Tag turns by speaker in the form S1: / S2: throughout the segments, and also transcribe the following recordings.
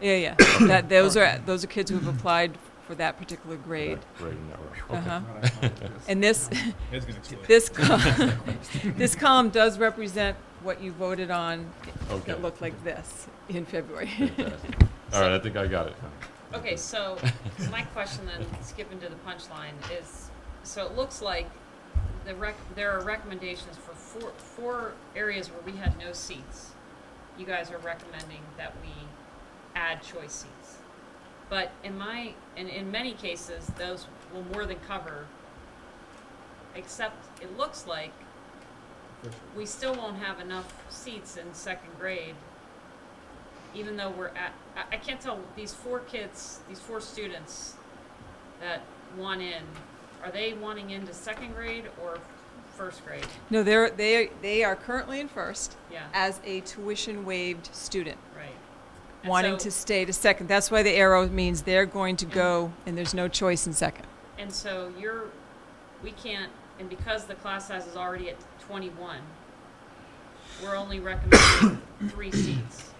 S1: Yeah, yeah. that, those are those are kids who have applied for that particular grade.
S2: Right in that row.
S1: Uh huh.
S3: Not ideological.
S1: And this
S3: It's gonna explode.
S1: this col- this column does represent what you voted on
S2: Okay.
S1: that looked like this in February.
S2: Fantastic. All right, I think I got it.
S4: Okay, so my question then, skipping to the punchline, is, so it looks like the rec, there are recommendations for four, four areas where we had no seats. You guys are recommending that we add choice seats. But in my, in, in many cases, those will more than cover, except it looks like we still won't have enough seats in second grade, even though we're at, I, I can't tell, these four kids, these four students that want in, are they wanting into second grade or first grade?
S1: No, they're they they are currently in first
S4: Yeah,
S1: as a tuition waived student.
S4: right. And
S1: Wanting to
S4: so-
S1: stay to second. That's why the arrow means they're going to go and there's no choice in second.
S4: And so you're, we can't, and because the class size is already at twenty-one, we're only recommending three seats.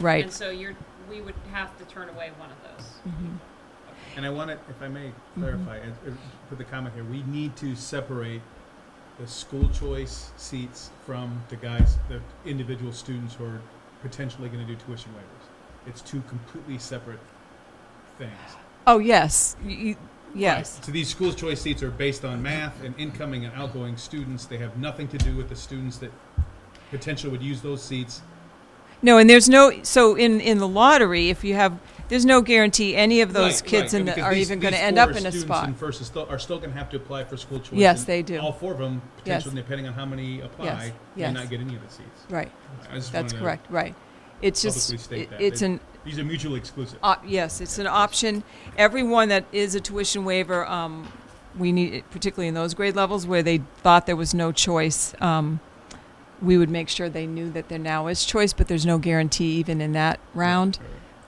S1: Right.
S4: And so you're, we would have to turn away one of those.
S1: Mm-hmm.
S3: And I want to, if I may clarify, and, uh, put the comment here, we need to separate the school choice seats from the guys, the individual students who are potentially going to do tuition waivers. It's two completely separate things.
S1: Oh yes. You- you- yes.
S3: Right. So these school choice seats are based on math and incoming and outgoing students. They have nothing to do with the students that potentially would use those seats.
S1: No, and there's no so in in the lottery if you have there's no guarantee any of those
S3: Right,
S1: kids
S3: right,
S1: in the,
S3: because
S1: are
S3: these-
S1: even going to
S3: these
S1: end
S3: four
S1: up in a
S3: students
S1: spot.
S3: in first is still- are still going to have to apply for school choice.
S1: Yes,
S3: and
S1: they do.
S3: All four of them
S1: Yes.
S3: potentially, depending on how many apply, may
S1: yes.
S3: not get any of the seats.
S1: right.
S3: I just
S1: That's
S3: wanted to
S1: correct. Right. It's
S3: publicly
S1: just
S3: state
S1: it-
S3: that.
S1: it's
S3: They-
S1: an
S3: These are mutually exclusive.
S1: op- yes, it's an option. Everyone that is a tuition waiver um, we need particularly in those grade levels where they thought there was no choice um, we would make sure they knew that there now is choice, but there's no guarantee even in that round.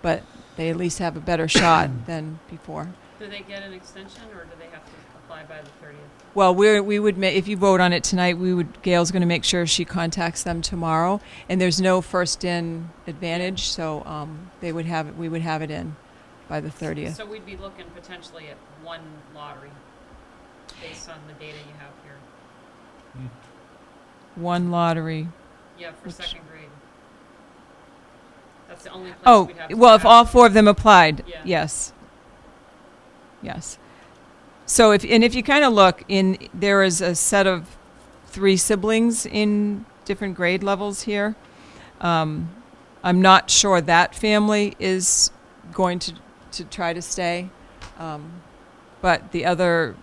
S1: But they at least have a better shot than before.
S4: Do they get an extension or do they have to apply by the thirtieth?
S1: Well, we're, we would, ma- if you vote on it tonight, we would, Gail's going to make sure she contacts them tomorrow. And there's no first in advantage, so um, they would have, it. we would have it in by the 30th.
S4: So we'd be looking potentially at one lottery based on the data you have here.
S1: One lottery.
S4: Yeah, for
S1: Which-
S4: second grade. That's the only place
S1: Oh,
S4: we'd have to
S1: well, if
S4: have-
S1: all four of them applied,
S4: Yeah.
S1: yes. Yes. So if, and if you kind of look in, there is a set of three siblings in different grade levels here. Um, I'm not sure that family is going to, to try to stay. Um, but the other,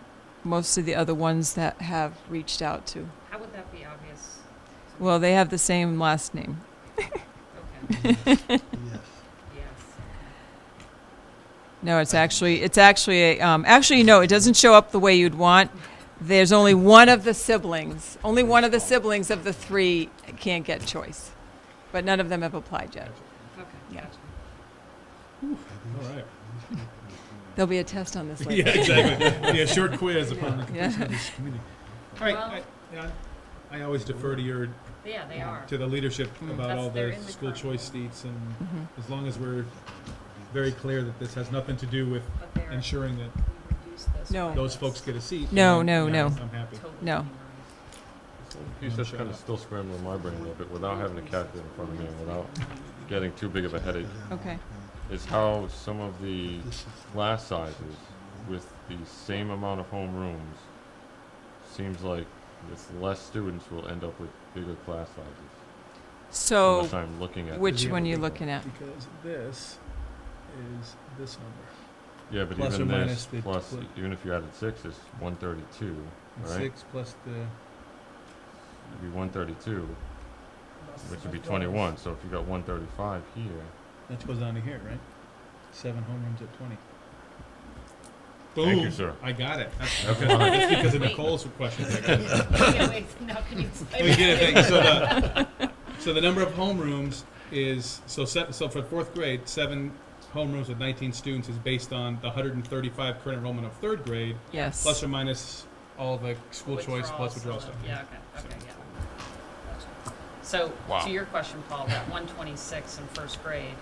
S1: most of the other ones that have reached out to,
S4: How would that be obvious? to me?
S1: well, they have the same last name.
S4: Okay,
S5: Yes.
S4: yes.
S1: No, it's actually it's actually a, um, actually no, it doesn't show up the way you'd want. There's only one of the siblings, only one of the siblings of the three can't get choice, but none of them have applied yet.
S4: Okay,
S1: Yeah.
S4: gotcha.
S3: All right.
S1: There'll be a test on this
S3: Yeah,
S1: later.
S3: exactly. Yeah, short quiz upon the
S1: Yeah.
S3: completion of this committee. All right, I, yeah, I always defer to your,
S4: Yeah, they are.
S3: to the leadership about
S4: Mm-hmm. That's-
S3: all
S4: they're
S3: the
S4: in the
S3: school
S4: current.
S3: choice seats and
S1: Mm-hmm.
S3: as long as we're very clear that this has nothing to do with
S4: But they are.
S3: ensuring that
S4: We reduced this
S1: No.
S4: by
S3: those
S4: this.
S3: folks get a seat.
S1: No,
S3: then
S1: no,
S3: I'm-
S1: no.
S3: I'm happy.
S4: Totally
S1: No.
S4: memorized.
S2: He's just kind of still scrambling my brain a little bit without having a calculator in front of me and without getting too big of a headache.
S1: Okay.
S2: Is how some of the class sizes with the same amount of home rooms seems like with less students will end up with bigger class sizes.
S1: So
S2: unless I'm looking at
S1: Oh, which
S2: this
S1: one are you
S2: differently.
S1: looking at?
S3: Because this is this number.
S2: Yeah, but
S3: Plus
S2: even
S3: or
S2: this
S3: minus the
S2: plus
S3: twen-
S2: even if you added six, it's one thirty-two, right?
S3: Six plus the.
S2: It'd be one thirty-two, which would be twenty-one. So if you got one thirty-five here,
S3: That goes down to here, right? Seven homerooms at twenty.
S2: Thank you,
S3: Boom.
S2: sure.
S3: I got it. That's,
S2: Okay.
S3: that's fine. That's because of Nicole's question. I got it.
S4: Yeah, wait, now can you explain
S3: We
S4: it?
S3: get it. Thank you. So the, so the number of homerooms is, so se so for fourth grade, seven homerooms with nineteen students is based on the hundred and thirty-five current enrollment of third grade,
S1: Yes.
S3: plus or minus all the school choice
S4: Withdrawals
S3: plus withdrawal
S4: and
S3: stuff.
S4: the- uh, Yeah, okay, okay, yeah. Gotcha. So,
S2: Wow.
S4: to your question, Paul, that one twenty-six in first grade,